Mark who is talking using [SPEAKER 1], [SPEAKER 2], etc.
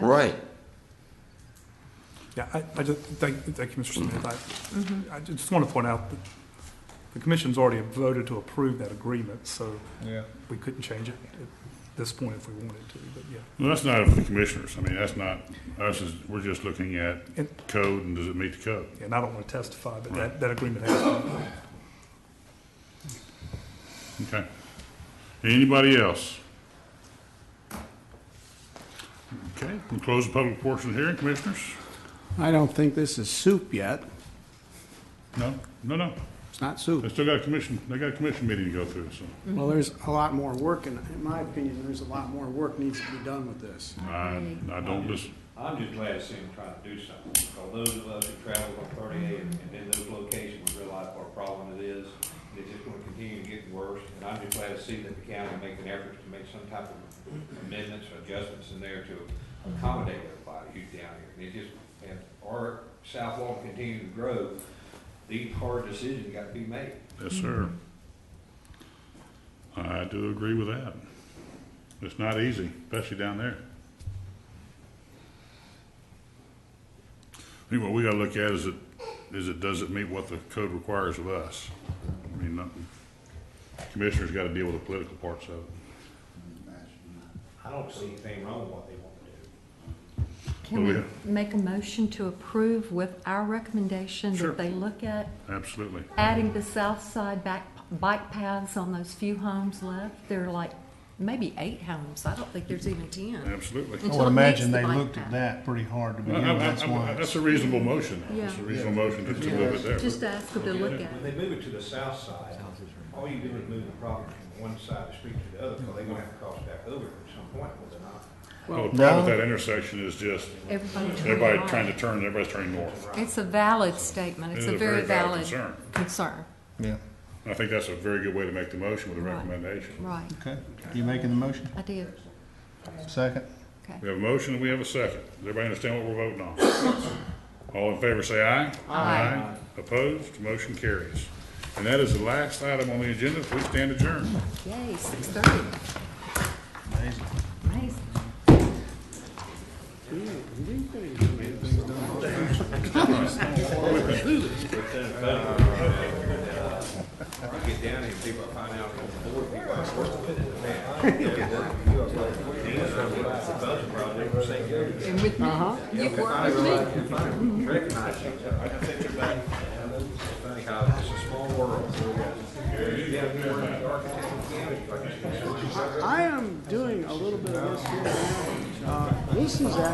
[SPEAKER 1] right.
[SPEAKER 2] Yeah, I, I just, thank, thank you, Mr. Smith. I, I just want to point out that the commission's already voted to approve that agreement, so
[SPEAKER 3] Yeah.
[SPEAKER 2] we couldn't change it at this point if we wanted to, but yeah.
[SPEAKER 4] Well, that's not up to the commissioners. I mean, that's not, us is, we're just looking at
[SPEAKER 2] And,
[SPEAKER 4] code and does it meet the code?
[SPEAKER 2] and I don't want to testify, but that, that agreement has been.
[SPEAKER 4] Okay. Anybody else? Okay, we'll close the public portion of the hearing, commissioners?
[SPEAKER 5] I don't think this is soup yet.
[SPEAKER 4] No, no, no.
[SPEAKER 5] It's not
[SPEAKER 4] They
[SPEAKER 5] soup.
[SPEAKER 4] still got a commission, they got a commission meeting to go through, so.
[SPEAKER 5] Well, there's a lot more work, and in my opinion, there's a lot more work needs to be done with this.
[SPEAKER 4] I, I don't listen.
[SPEAKER 6] I'm just glad to see them trying to do something, because those of us who traveled on thirty-eight and in those locations, we realize what a problem it is. and It's just gonna continue to get worse, and I'm just glad to see that the county making efforts to make some type of amendments or adjustments in there to accommodate everybody who's down here. And it just, and our South Lawn continue to grow, these hard decisions gotta be made.
[SPEAKER 4] Yes, sir. I do agree with that. It's not easy, especially down there. I think what we gotta look at is it, is it, does it meet what the code requires of us? I mean, nothing, commissioners gotta deal with the political parts of it.
[SPEAKER 6] I don't see anything wrong with what they want to do.
[SPEAKER 4] Oh,
[SPEAKER 7] Can
[SPEAKER 4] yeah.
[SPEAKER 7] we make a motion to approve with our recommendation
[SPEAKER 4] Sure.
[SPEAKER 7] that they look at
[SPEAKER 4] Absolutely.
[SPEAKER 7] adding the south side back, bike paths on those few homes left? There are like maybe eight homes. I don't think there's even ten.
[SPEAKER 4] Absolutely.
[SPEAKER 3] I
[SPEAKER 7] Until
[SPEAKER 3] would
[SPEAKER 7] it meets
[SPEAKER 3] imagine
[SPEAKER 7] the
[SPEAKER 3] they
[SPEAKER 7] bike
[SPEAKER 3] looked at
[SPEAKER 7] path.
[SPEAKER 3] that pretty hard to
[SPEAKER 4] I- I-
[SPEAKER 3] begin with, that's
[SPEAKER 4] I-
[SPEAKER 3] why.
[SPEAKER 4] I- uh, That's a reasonable motion. That's a
[SPEAKER 7] Yeah.
[SPEAKER 4] reasonable motion to to move it there.
[SPEAKER 7] Just ask them to look at
[SPEAKER 6] When
[SPEAKER 7] it.
[SPEAKER 6] they move it to the south side, all you do is move the property from one side of the street to the other, because they're gonna have to cross back over at some point, will they not?
[SPEAKER 4] Well, the problem with that intersection is just,
[SPEAKER 7] Everybody turn
[SPEAKER 4] everybody
[SPEAKER 7] right.
[SPEAKER 4] trying to turn, everybody's turning north.
[SPEAKER 7] It's a valid statement. It's a very valid
[SPEAKER 4] concern.
[SPEAKER 7] concern.
[SPEAKER 3] Yeah,
[SPEAKER 4] I think that's a very good way to make the motion with a
[SPEAKER 7] Right.
[SPEAKER 4] recommendation.
[SPEAKER 7] Right,
[SPEAKER 3] okay. You making the motion?
[SPEAKER 7] I did,
[SPEAKER 3] Second?
[SPEAKER 7] okay.
[SPEAKER 4] We have a motion and we have a second. Does everybody understand what we're voting on? All in favor, say aye. Aye. Opposed, motion carries. And that is the last item on the agenda. Please stand adjourned.
[SPEAKER 7] Yay, six thirty,
[SPEAKER 3] Amazing.
[SPEAKER 7] amazing.
[SPEAKER 6] Or get down here, and people find out, the board people are working with it,
[SPEAKER 7] And with me, you've worked with me.
[SPEAKER 6] man. Recognize you. I think you're back. I know it's funny how it's a small world. You have to work with the architect and the county, like you said.
[SPEAKER 5] I am doing a little bit of this here now. Uh, This is